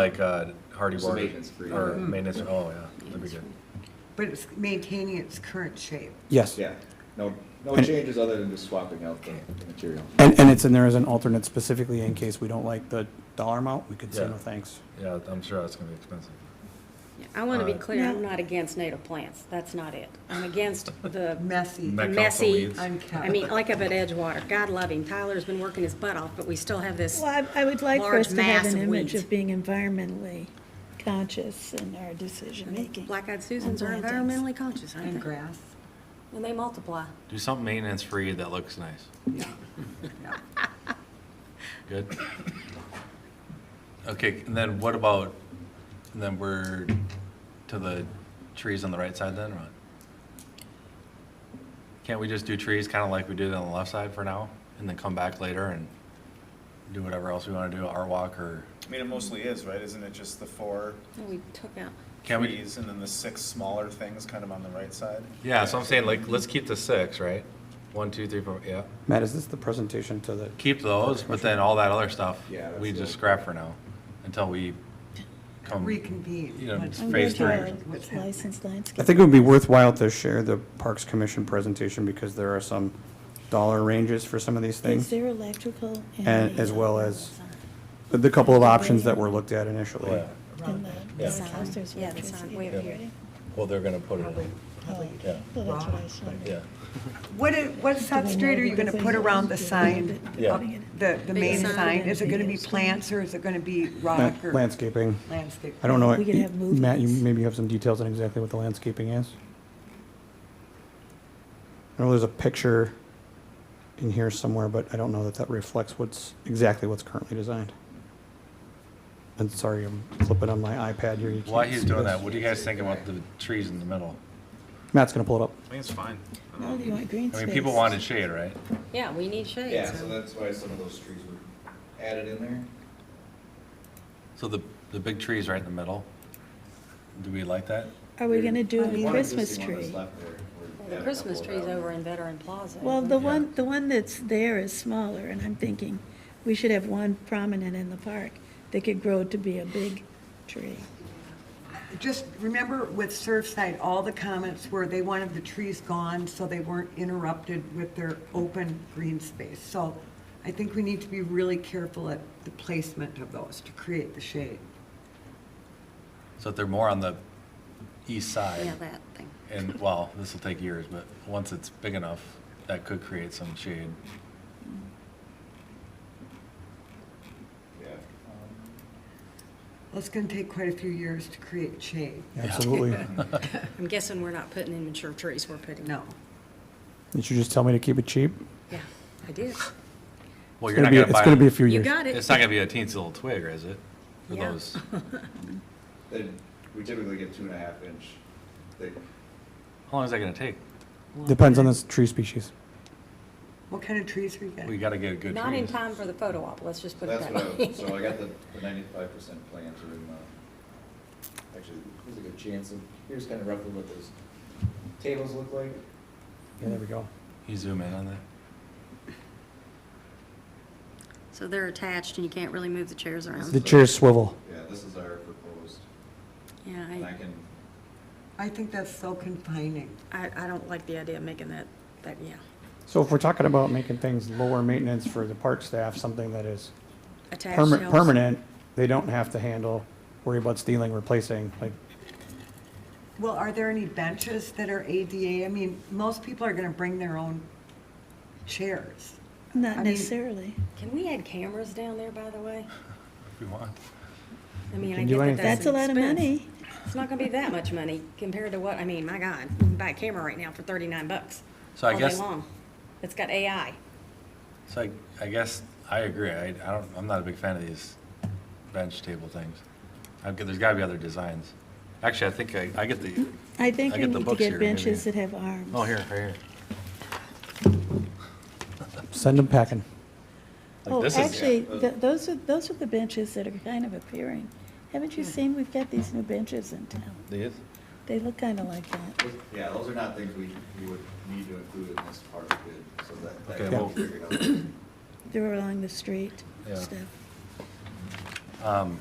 Like uh, Hardy Just a Board. maintenance-free. Or maintenance, oh, yeah, that'd be good. But it's maintaining its current shape. Yes. Yeah, no, no And- changes other than just swapping out the the material. And, and it's in there as an alternate specifically in case we don't like the dollar amount, we could say Yeah. no thanks. Yeah, I'm sure that's gonna be expensive. Yeah, I want to be Uh, clear, I'm No. not against native plants, that's not it. I'm against the Messy, That counts the messy, weeds. unkept. I mean, like up at Edgewater, God love him, Tyler's been working his butt off, but we still have this, Well, I I would like for large us to have mass an of image weeds. of being environmentally conscious in our decision-making. black-eyed Susans are And plantings. environmentally conscious, And aren't they? grass. And they multiply. Do something maintenance free that looks nice. Good. Okay, and then what about, and then we're to the trees on the right side then, or what? Can't we just do trees kind of like we did on the left side for now? And then come back later and do whatever else we want to do, our walk or, I mean, it mostly is, right? Isn't it just the four And we took out, Can we- trees and then the six smaller things kind of on the right side? yeah, so I'm saying like, let's keep the six, right? One, two, three, four, yeah. Matt, is this the presentation to the, Keep those, but then all that other stuff, Yeah, that's we the- just scrap for now until we come. Reconvene. Um, You know, What's- I'm phase I'm three. going to What's our happening? licensed I landscape. think it would be worthwhile to share the Parks Commission presentation because there are some dollar ranges for some of these Is things. there electrical? And the- as well as the couple of options that were looked at Oh, initially. yeah. And the- Yeah. the sounds, there's Yeah, the sound electricity wave there, here. right? Well, they're gonna put it in. Oh, Yeah. well, that's what I was wondering. Yeah. What, i- what substrate are you gonna put around the sign? Yeah. up- The, the main sign. sign? Is it gonna be plants or is it gonna be rock Lan- or? Landscaping. Landscape. I don't know. We could have Matt, you movements. maybe have some details on exactly what the landscaping is? I know there's a picture in here somewhere, but I don't know that that reflects what's, exactly what's currently designed. And sorry, I'm flipping on my iPad here. You While can't he's see doing this. that, what do you guys think about the trees in the middle? Matt's gonna pull it up. I think it's fine. Oh, you want green I space? mean, people wanted shade, right? yeah, we need shade. Yeah, so that's why some of those trees were added in there. So the, the big tree's right in the middle. Do we like that? Are we going to do There's a one Christmas existing one that's tree? left there. We're adding The a Christmas couple of tree's them. over in Veteran Plaza. Well, the Yeah. one, the one that's there is smaller, and I'm thinking we should have one prominent in the park that could grow to be a big tree. Just remember with Surfside, all the comments were they wanted the trees gone so they weren't interrupted with their open green space. So I think we need to be really careful at the placement of those to create the shade. So if they're more on the east side, Yeah, that thing. and, well, this will take years, but once it's big enough, that could create some shade. Yeah. Well, it's gonna take quite a few years to create shade. Absolutely. I'm guessing we're not putting in mature trees, we're putting. No. Did you just tell me to keep it cheap? Yeah, I Well, did. It's you're gonna not be, gonna it's gonna be a buy, few You years. got it. it's not gonna be a teensy little twig, is it? For Yeah. those, Then we typically get two and a half inch thick. how long is that gonna take? Depends on this tree species. What kind of trees are you We getting? gotta get a good Not in tree. time for the photo op, let's just put it That's that what I, way. so I got the ninety-five percent plans are in the, actually, there's a good chance of, here's kind of roughly what those tables look like. Yeah, there we go. You zoom in on that? So they're attached and you can't really move the chairs around. The chairs swivel. Yeah, this is our proposed, Yeah, and I I, can, I think that's so confining. I, I don't like the idea of making that, that, yeah, So if we're talking about making things lower maintenance for the park staff, something that is attached. permanent, shelves. permanent, they don't have to handle, worry about stealing, replacing, like, Well, are there any benches that are ADA? I mean, most people are gonna bring their own chairs. I Not mean- necessarily. Can we add cameras down there, by the way? If we want. I mean, I can do get that anything. that's That's a an lot of expense. money. It's not gonna be that much money compared to what, I mean, my God, you can buy a camera right now for thirty-nine bucks. So I all day guess- long. It's got AI. So I, I guess I agree. I, I don't, I'm not a big fan of these bench table things. I've got, there's gotta be other designs. Actually, I think I, I get the, I think I we get the need to books here, get maybe. benches that have arms. oh, here, right here. send them packing. Like, Oh, this is- actually, th- those are, those are the benches that are kind of appearing. Haven't Hmm. you seen, we've got these new benches in town. These? They look kind of like that. those- yeah, those are not things we, we would need to include in this part of bid, so that, that Okay, can well- be figured out. They're along the street Yeah. stuff. Um,